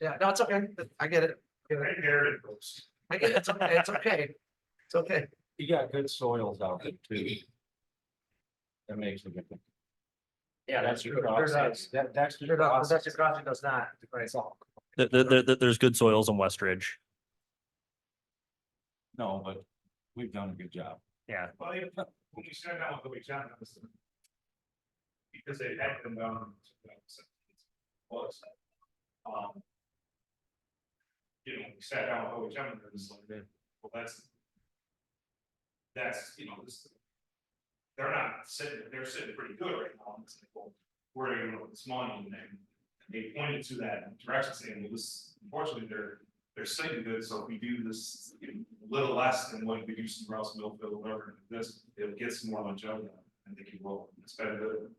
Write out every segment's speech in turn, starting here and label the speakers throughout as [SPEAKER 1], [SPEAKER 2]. [SPEAKER 1] Yeah, no, it's okay. I get it.
[SPEAKER 2] I inherited those.
[SPEAKER 1] I get it. It's okay. It's okay. It's okay.
[SPEAKER 3] You got good soils out there too. That makes a difference.
[SPEAKER 1] Yeah,
[SPEAKER 3] That's
[SPEAKER 1] true.
[SPEAKER 3] your
[SPEAKER 1] There's
[SPEAKER 3] process.
[SPEAKER 1] a-
[SPEAKER 3] That, that's your
[SPEAKER 1] Sure, no,
[SPEAKER 3] process.
[SPEAKER 1] Dutchess Crossing does not, right?
[SPEAKER 4] There, there- there- there- there's good soils in West Ridge.
[SPEAKER 3] No, but we've done a good job.
[SPEAKER 4] Yeah.
[SPEAKER 2] Well, if- when you send out the weekend. that was- Because they had them down. to that sentence. Was. Um. You know, oh, we sat down with OHM and it was like, well, that's. That's, you know, this. They're not sitting, they're sitting pretty good right now. and It's like, well, where are you going with this money? And then they pointed to that direction saying, well, this, unfortunately, they're, they're sitting good, so if we do this, you know, a little less than what we do somewhere else, Millville, whatever, this, it'll get some more longevity. I think it will, it's better than.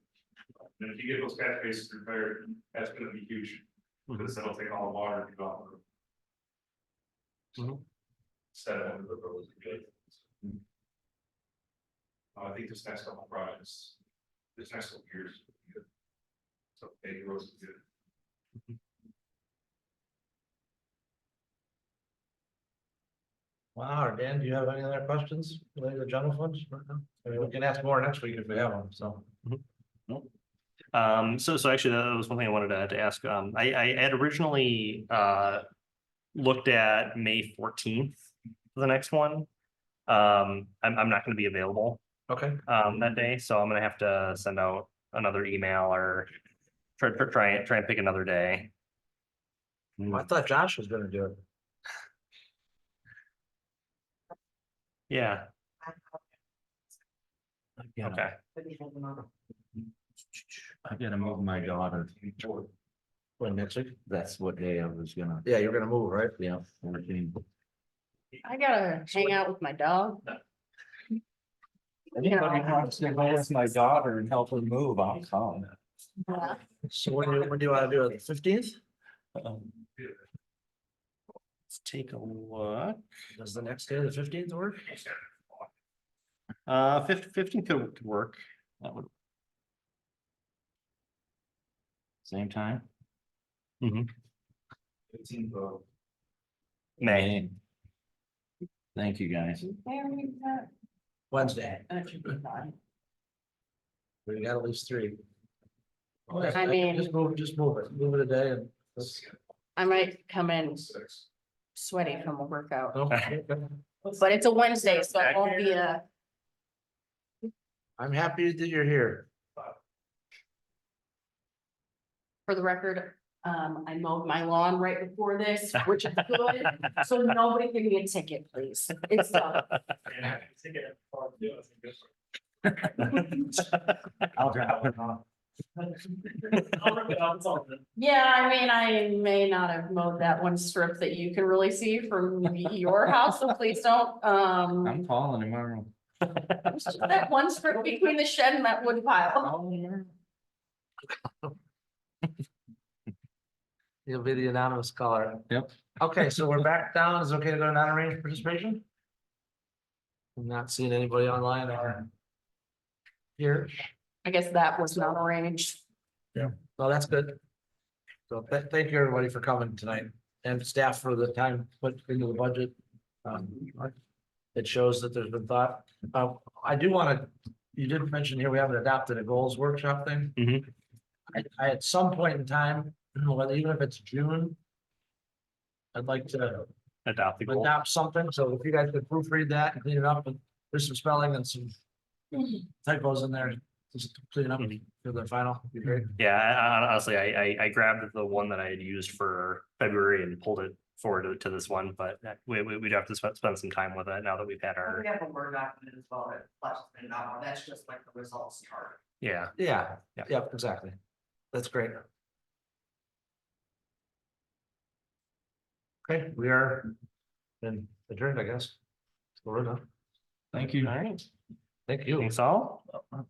[SPEAKER 2] And if you get those catch bases repaired, that's gonna be huge, because that'll take all the water to go out. of the road.
[SPEAKER 4] Mhm.
[SPEAKER 2] Instead of the roads. good. Uh, I think this next couple of projects, this next couple of years. will be good. So, big roads is good.
[SPEAKER 1] Wow, Dan, do you have any other questions related to general funds? I mean, we can ask more next week if we have them, so.
[SPEAKER 4] Um, so, so actually that was one thing I wanted to, to ask. Um, I, I had originally, uh, looked at May fourteenth, for the next one. Um, I'm, I'm not going to be available,
[SPEAKER 1] Okay,
[SPEAKER 4] um, that day, so I'm gonna have to send out another email or try, try- try, and- try and pick another day.
[SPEAKER 1] I thought Josh was gonna do it.
[SPEAKER 4] Yeah, okay.
[SPEAKER 3] I gotta move my daughter.
[SPEAKER 1] When next week?
[SPEAKER 3] That's what day I was gonna,
[SPEAKER 1] Yeah, you're gonna move, right?
[SPEAKER 3] yeah, fourteen.
[SPEAKER 5] I gotta hang out with my dog.
[SPEAKER 3] Anybody wants to go with my daughter and help her move, I'll come.
[SPEAKER 1] So when do, you- when do you wanna do it? Fifteenth?
[SPEAKER 3] Um,
[SPEAKER 4] Let's take a look.
[SPEAKER 1] Does the next day, the fifteenth work?
[SPEAKER 4] Uh, fif- fifteen could, could work. That would,
[SPEAKER 3] Same time?
[SPEAKER 2] Fifteen, uh,
[SPEAKER 4] May,
[SPEAKER 3] Thank you, guys.
[SPEAKER 1] Wednesday.
[SPEAKER 5] I
[SPEAKER 1] We got at least three.
[SPEAKER 2] Okay.
[SPEAKER 1] Just-
[SPEAKER 5] mean-
[SPEAKER 1] Just move, just move it, move it a day and. let's-
[SPEAKER 5] might come in
[SPEAKER 2] six.
[SPEAKER 5] sweaty from a workout,
[SPEAKER 1] no,
[SPEAKER 4] Okay.
[SPEAKER 1] okay.
[SPEAKER 5] but it's a Wednesday, so it won't be uh, a,
[SPEAKER 1] I'm happy that you're here.
[SPEAKER 5] for the record. Um, I mowed my lawn right before this, which is good, so nobody give me a ticket, please. It's done.
[SPEAKER 2] And I think it- yeah, I think that's-
[SPEAKER 3] I'll drop it off.
[SPEAKER 5] Yeah, I mean, I may not have mowed that one strip that you can really see from your house, so please don't, um.
[SPEAKER 3] I'm calling tomorrow.
[SPEAKER 5] It's just That one strip between the shed and that wood pile.
[SPEAKER 1] You'll be the anonymous caller.
[SPEAKER 3] Yep.
[SPEAKER 1] Okay, so we're back down. Is it okay to go to non-arranged participation? I'm not seeing anybody online or here.
[SPEAKER 5] I guess that was not arranged.
[SPEAKER 1] No, that's good. So th- thank you, everybody, for coming tonight and staff for the time put into the budget. Um, It shows that there's been thought. Uh, I do want to, you did mention here, we haven't adopted a goals workshop thing.
[SPEAKER 4] Mhm.
[SPEAKER 1] I, I at some point in time, whether even if it's June. I'd like to
[SPEAKER 4] adopt the goal.
[SPEAKER 1] adopt something, so if you guys could proofread that and clean it up, and there's some spelling and some typos in there, just clean it up for the final, be great.
[SPEAKER 4] Yeah, I- I- honestly, I, I, I grabbed the one that I had used for February and pulled it forward to, to this one, but that- we, we, we'd have to spend, spend some time with it now that we've had our,
[SPEAKER 6] We have a Word document as well, that flashes been out, that's just like the results chart.
[SPEAKER 4] yeah.
[SPEAKER 1] Yeah,
[SPEAKER 4] Yeah.
[SPEAKER 1] yeah, exactly. That's great. Okay, we are then adjourned, I guess. We're done.
[SPEAKER 3] Thank you.
[SPEAKER 4] All right,
[SPEAKER 1] Thank you.
[SPEAKER 4] thanks all.